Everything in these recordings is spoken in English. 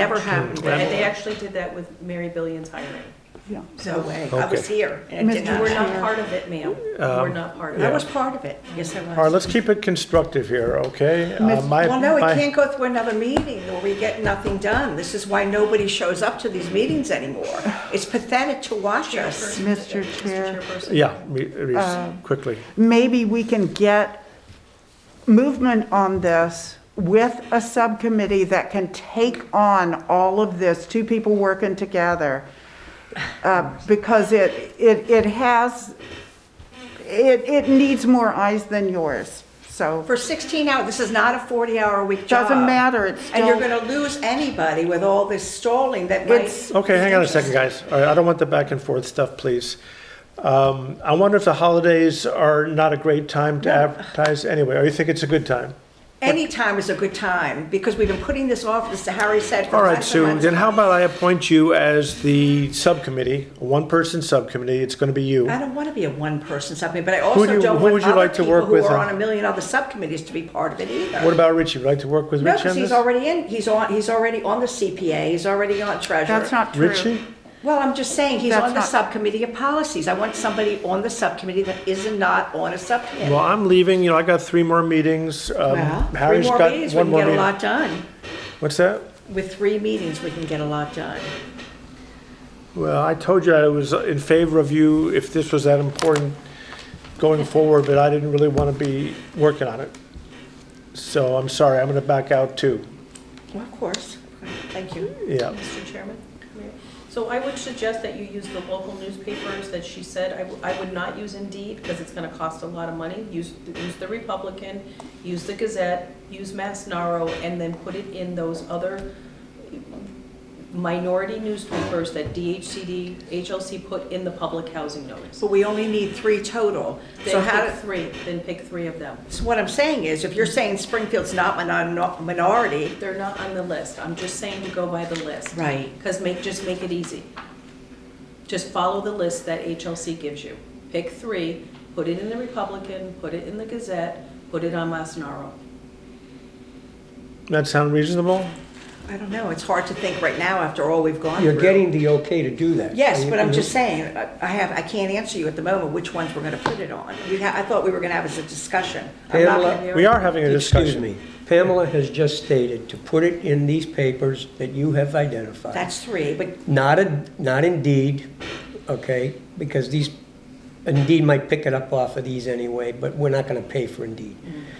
Never happened. They they actually did that with Mary Billion's hiring. Yeah. No way, I was Okay. here, and it did Mr. not We're happen. We're not part of it, ma'am. We're not part I um, of yeah. it. was part of it, yes, I was. All right, let's keep it constructive here, okay? Uh, Miss- my- Well, no, we my- can't go through another meeting where we get nothing done. This is why nobody shows up to these meetings anymore. It's pathetic to watch us. Mr. Chair, Chairperson. Yeah, me- Reese, Um, quickly. maybe we can get movement on this with a subcommittee that can take on all of this, two people working together. Uh, Because it, it, it has, it, it needs more eyes than yours, so. For 16 hours, this is not a 40-hour week job. Doesn't matter, it's And you're still- going to lose anybody with all this stalling that It's- might... Okay, hang on a second, guys. All right, I don't want the back and forth stuff, please. Um, I wonder if the holidays are not a great time to advertise anyway, or you think it's a good time? Any time is a good time, because we've been putting this off, as Harry said, for All right, months and Sue, months. then how about I appoint you as the subcommittee, a one-person subcommittee, it's gonna be you. I don't want to be a one-person subcommittee, but I also do you- don't who want would you other like to people work who with are on- on a million other subcommittees to be part of it either. What about Richie? Would you like to work with No, Richie on because he's this? already in, he's on, he's already on the CPA, he's already on treasurer. That's not true. Richie? Well, I'm just saying, he's That's on the not- subcommittee of policies. I want somebody on the subcommittee that isn't not on a subcommittee. Well, I'm leaving, you know, I got three more meetings. Um, Well, Harry's Three more got meetings, we one can more get a meeting. lot done. What's that? With three meetings, we can get a lot done. Well, I told you I was in favor of you if this was that important going forward, but I didn't really want to be working on it. So I'm sorry, I'm going to back out too. Well, of course. Thank you, Yeah. Mr. Chairman. So I would suggest that you use the local newspapers that she said. I w- I would not use Indeed because it's going to cost a lot of money. Use, use the Republican, use the Gazette, use Masnarro, and then put it in those other minority newspapers that DHCD, HLC put in the public housing notice. But we only need three total. So Then how, pick do- three, then pick three of them. so what I'm saying is, if you're saying Springfield's not minor- minority, They're not on the list. I'm just saying to go by the list. Right. Because make, just make it easy. Just follow the list that HLC gives you. Pick three, put it in the Republican, put it in the Gazette, put it on Masnarro. That sound reasonable? I don't know, it's hard to think right now after all we've gone through. You're getting the okay to do that. Yes, but I'm just saying, I I have, I can't answer you at the moment which ones we're gonna put it on. We ha I thought we were gonna have as a discussion. I'm not gonna- Pamela- We are having a Excuse discussion. me. Pamela has just stated to put it in these papers that you have identified. That's three, but Not a, not indeed, okay, because these, indeed might pick it up off of these anyway, but we're not gonna pay for indeed.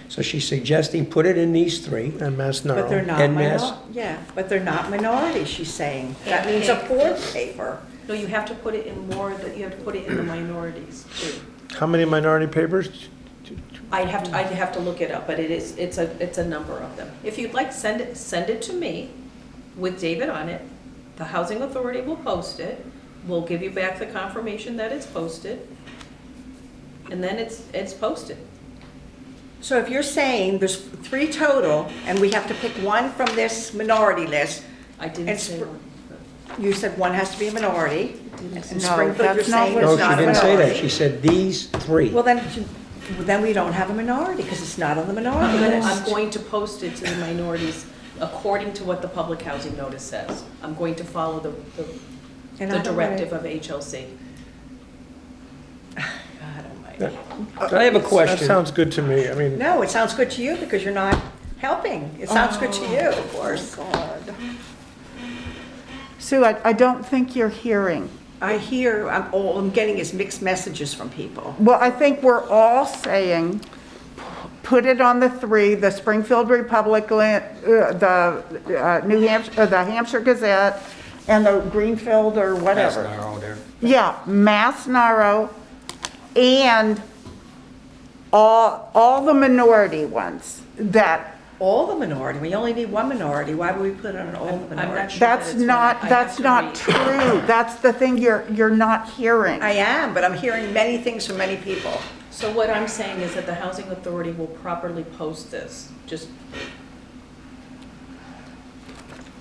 So she's suggesting put it in these three. And Mass Mm. But they're Narrow. not And mass- minor, yeah, but they're not minority, she's saying. That means a fourth paper. No, you have to put it in more, that you have to put it in the minorities too. How many minority papers? I'd have Mm-hmm. to, I'd have to look it up, but it is, it's a, it's a number of them. If you'd like, send it, send it to me with David on it. The housing authority will post it. We'll give you back the confirmation that it's posted. And then it's, it's posted. So if you're saying there's three total, and we have to pick one from this minority list, I didn't It's say pr- one. you said one has to be a minority. And No, Springfield, you're that's not saying what it's No, not she a didn't say that. minority. She said these three. Well, then, well, then we don't have a minority, because it's not on the minority I'm gonna- list. I'm going to post it to the minorities according to what the public housing notice says. I'm going to follow the, the- And the I don't wanna- directive of HLC. God almighty. I have a question. That sounds good to me. I mean, No, it sounds good to you because you're not helping. It sounds good to you, of course. Oh, Sue, I, I don't think you're hearing. I hear, I'm, all I'm getting is mixed messages from people. Well, I think we're all saying, put it on the three, the Springfield Republican, uh, the uh, New Hampshire, uh, the Hampshire Gazette, and the Greenfield or whatever. Yeah, Mass Narrow, and all, all the minority ones that, All the minority, we only need one minority. Why would we put on all the I'm not minority? sure that that's it's one. I not, have that's to not read. true. That's the thing you're, you're not hearing. I am, but I'm hearing many things from many people. So what I'm saying is that the housing authority will properly post this, just,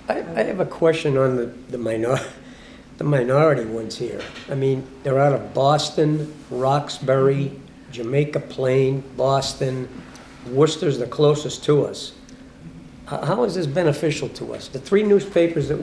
I, I have a question on the, the minor, the minority ones here. I mean, they're out of Boston, Roxbury, Jamaica Plain, Boston, Worcester's the closest to us. How how is this beneficial to us? The three newspapers that